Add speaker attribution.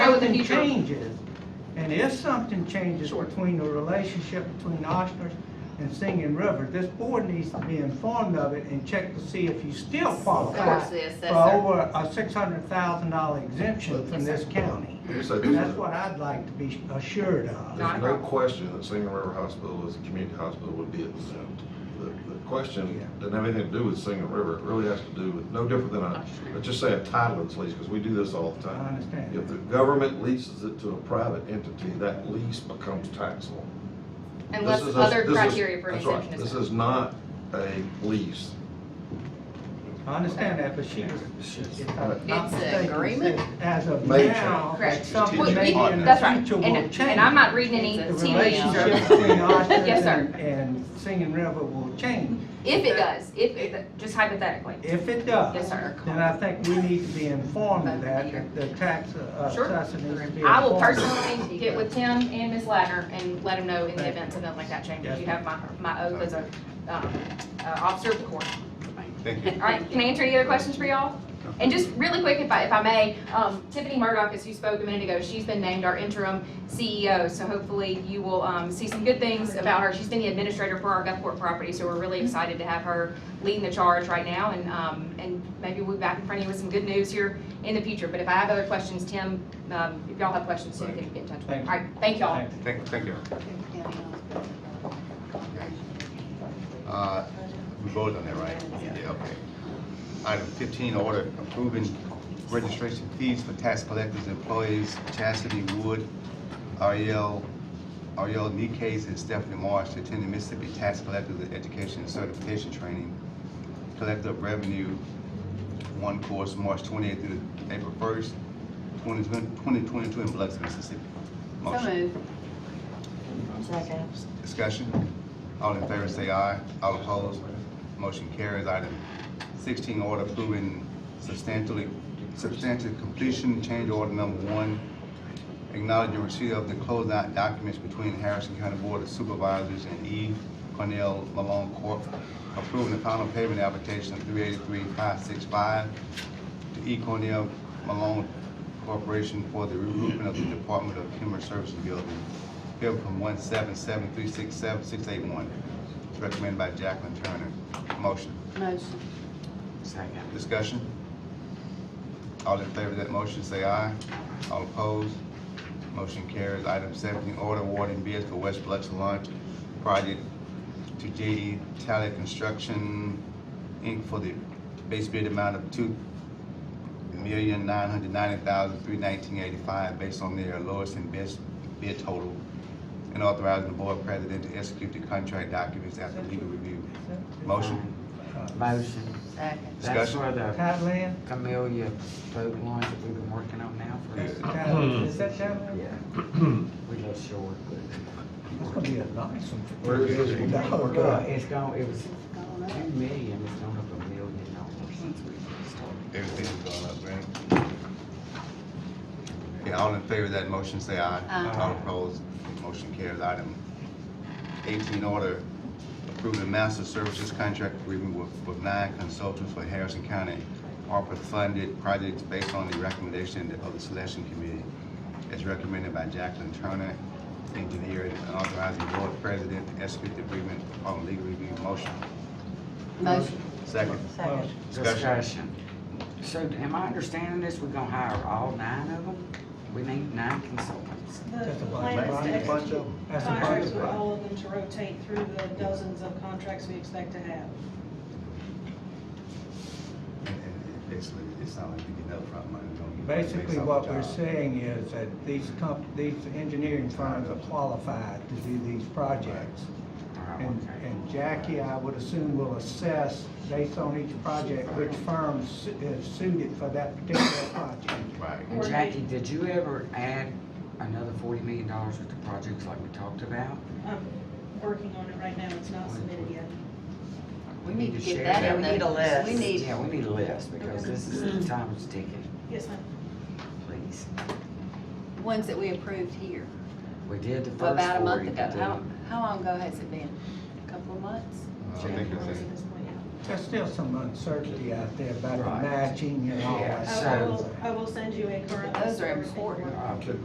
Speaker 1: something
Speaker 2: future.
Speaker 1: changes, and if something changes between the relationship between Oshner's and Singing River, this board needs to be informed of it and check to see if you still qualify
Speaker 2: Of course, the
Speaker 1: for
Speaker 2: assessor.
Speaker 1: over a six hundred thousand dollar exemption from
Speaker 2: Yes, sir.
Speaker 1: this county.
Speaker 3: You said there's
Speaker 1: That's
Speaker 3: no-
Speaker 1: what I'd like to be assured of.
Speaker 2: Not a
Speaker 3: there's no
Speaker 2: problem.
Speaker 3: question that Singing River Hospital is a community hospital would be exempt. The, the question doesn't have anything to do with Singing River, it really has to do with, no different than a, let's just say a title lease, because we do this all the
Speaker 1: I
Speaker 2: Uh-huh.
Speaker 3: time.
Speaker 1: understand.
Speaker 3: If the government leases it to a private entity, that lease becomes taxable.
Speaker 2: Unless
Speaker 3: This is a-
Speaker 2: other
Speaker 3: this is-
Speaker 2: criteria for an
Speaker 3: that's right.
Speaker 2: exemption is
Speaker 3: This
Speaker 2: met.
Speaker 3: is not a lease.
Speaker 1: I understand that, but she was, if I'm not
Speaker 2: It's an
Speaker 1: mistaken,
Speaker 2: agreement?
Speaker 1: said as of
Speaker 3: Major.
Speaker 1: now,
Speaker 2: Correct.
Speaker 1: something
Speaker 2: We-
Speaker 1: may
Speaker 2: we-
Speaker 1: in
Speaker 2: That's
Speaker 1: the
Speaker 2: right,
Speaker 1: future will change.
Speaker 2: and, and I'm not reading any
Speaker 1: The
Speaker 2: tea
Speaker 1: relationship
Speaker 2: leaves.
Speaker 1: between Oshner's
Speaker 2: Yes, sir.
Speaker 1: and- and Singing River will change.
Speaker 2: If it does, if, just hypothetically.
Speaker 1: If it does.
Speaker 2: Yes, sir.
Speaker 1: Then I think we need to be informed of that, that the tax uh,
Speaker 2: Sure.
Speaker 1: assessor needs to be informed.
Speaker 2: I will personally get with Tim and Ms. Ladner and let them know in the event something like that changes. You have my, my oath as a, um, uh, officer of the court.
Speaker 4: Thank
Speaker 2: All right, can I answer any other questions for y'all? And just really quick, if I, if I may, um, Tiffany Murdoch, as you spoke a minute ago, she's been named our interim CEO, so hopefully you will, um, see some good things about her. She's been the administrator for our Gulfport property, so we're really excited to have her leading the charge right now, and, um, and maybe we'll be back in front of you with some good news here in the future. But if I have other questions, Tim, um, if y'all have questions, you can get in touch with me.
Speaker 1: Thank
Speaker 2: All
Speaker 1: you.
Speaker 2: right, thank y'all.
Speaker 1: Thank
Speaker 4: Thank, thank you. Uh, We voted on that, right? Yeah, okay. Item fifteen, order approving registration fees for tax collectors, employees, Chastity Wood, Ariel, Ariel Nikes, and Stephanie Marsh, to attend the Mississippi Tax Collectors Education and Certification Training, Collector of Revenue, one course, March twenty-eighth through April first, twenty twenty-two in Biloxi, Mississippi. Motion. Discussion? All in favor say aye. All opposed? Motion carries. Item sixteen, order approving substantially, substantive completion change order number one, acknowledging receipt of the closeout documents between Harrison County Board of Supervisors and E. Cornell Malone Corp., approving the final payment application of three eighty-three five six five to E. Cornell Malone Corporation for the reroofing of the Department of Human Services Building, bill from one seven seven three six seven six eight one, recommended by Jacqueline Turner. Motion.
Speaker 5: Motion.
Speaker 4: Discussion? All in favor of that motion, say aye. All opposed? Motion carries. Item seventeen, order awarding bids for West Biloxi Launch Project to J.E. Talley Construction, Inc. for the base bid amount of two million nine hundred ninety thousand three nineteen eighty-five, based on their lowest and best bid total, and authorizing the board president to execute the contract documents after legal review. Motion?
Speaker 6: Motion.
Speaker 5: Second.
Speaker 6: That's
Speaker 4: Discussion.
Speaker 6: where the
Speaker 1: Thailand,
Speaker 6: Camellia boat launch that we've been working on now for,
Speaker 1: Thailand, is that Thailand?
Speaker 6: yeah. We go short.
Speaker 1: It's gonna be a nice one.
Speaker 3: Where is this?
Speaker 6: Well, Uh, it's gone, it was two million, it's gone up a million dollars since we started.
Speaker 4: Everything's going up, right? Okay, all in favor of that motion, say aye.
Speaker 5: Aye.
Speaker 4: All opposed, motion carries. Item eighteen, order approving master services contract agreement with, with nine consultants for Harrison County ARPA-funded projects based on the recommendation of the selection committee as recommended by Jacqueline Turner, engineer, and authorizing board president to execute the agreement on legal review motion.
Speaker 5: Motion.
Speaker 4: Second,
Speaker 1: Second.
Speaker 4: discussion.
Speaker 6: Discussion. So am I understanding this, we're gonna hire all nine of them? We need nine consultants.
Speaker 1: That's a
Speaker 7: The
Speaker 1: bunch,
Speaker 7: plan
Speaker 1: bunch,
Speaker 7: is to
Speaker 1: bunch of
Speaker 7: execute
Speaker 1: them. That's a bunch
Speaker 7: contracts
Speaker 1: of
Speaker 7: with
Speaker 1: them.
Speaker 7: all of them to rotate through the dozens of contracts we expect to have.
Speaker 4: And- and Basically, it sounds like we get no front money. don't get-
Speaker 1: Basically,
Speaker 4: based off
Speaker 1: what
Speaker 4: the
Speaker 1: we're
Speaker 4: job.
Speaker 1: saying is that these comp, these engineering firms are qualified to do these projects.
Speaker 6: Oh,
Speaker 1: And,
Speaker 6: okay.
Speaker 1: and Jackie, I would assume will assess based on each project, which firm su- is suited for that particular project.
Speaker 4: Right.
Speaker 6: And Jackie, did you ever add another forty million dollars worth of projects like we talked about?
Speaker 7: I'm working on it right now, it's not submitted yet.
Speaker 6: We
Speaker 5: need to get
Speaker 6: share
Speaker 5: that
Speaker 6: that.
Speaker 5: in the- We need a list. we need- Mm-hmm.
Speaker 6: Yeah, we need a list, because this is the time's ticking,
Speaker 7: Yes, ma'am.
Speaker 6: please.
Speaker 5: Ones that we approved here
Speaker 6: We did the first four.
Speaker 5: about a month
Speaker 6: you
Speaker 5: ago.
Speaker 6: did-
Speaker 5: How, how long ago has it been? A Couple of months?
Speaker 4: I think it's
Speaker 7: At
Speaker 4: in-
Speaker 7: this point, yeah.
Speaker 1: There's still some uncertainty out there about the
Speaker 6: Right.
Speaker 1: matching and all
Speaker 6: Yeah.
Speaker 1: that.
Speaker 7: I
Speaker 6: So-
Speaker 7: will, I will send you a current.
Speaker 5: Those
Speaker 7: list of
Speaker 5: are
Speaker 7: everything we're
Speaker 5: important.
Speaker 6: Okay.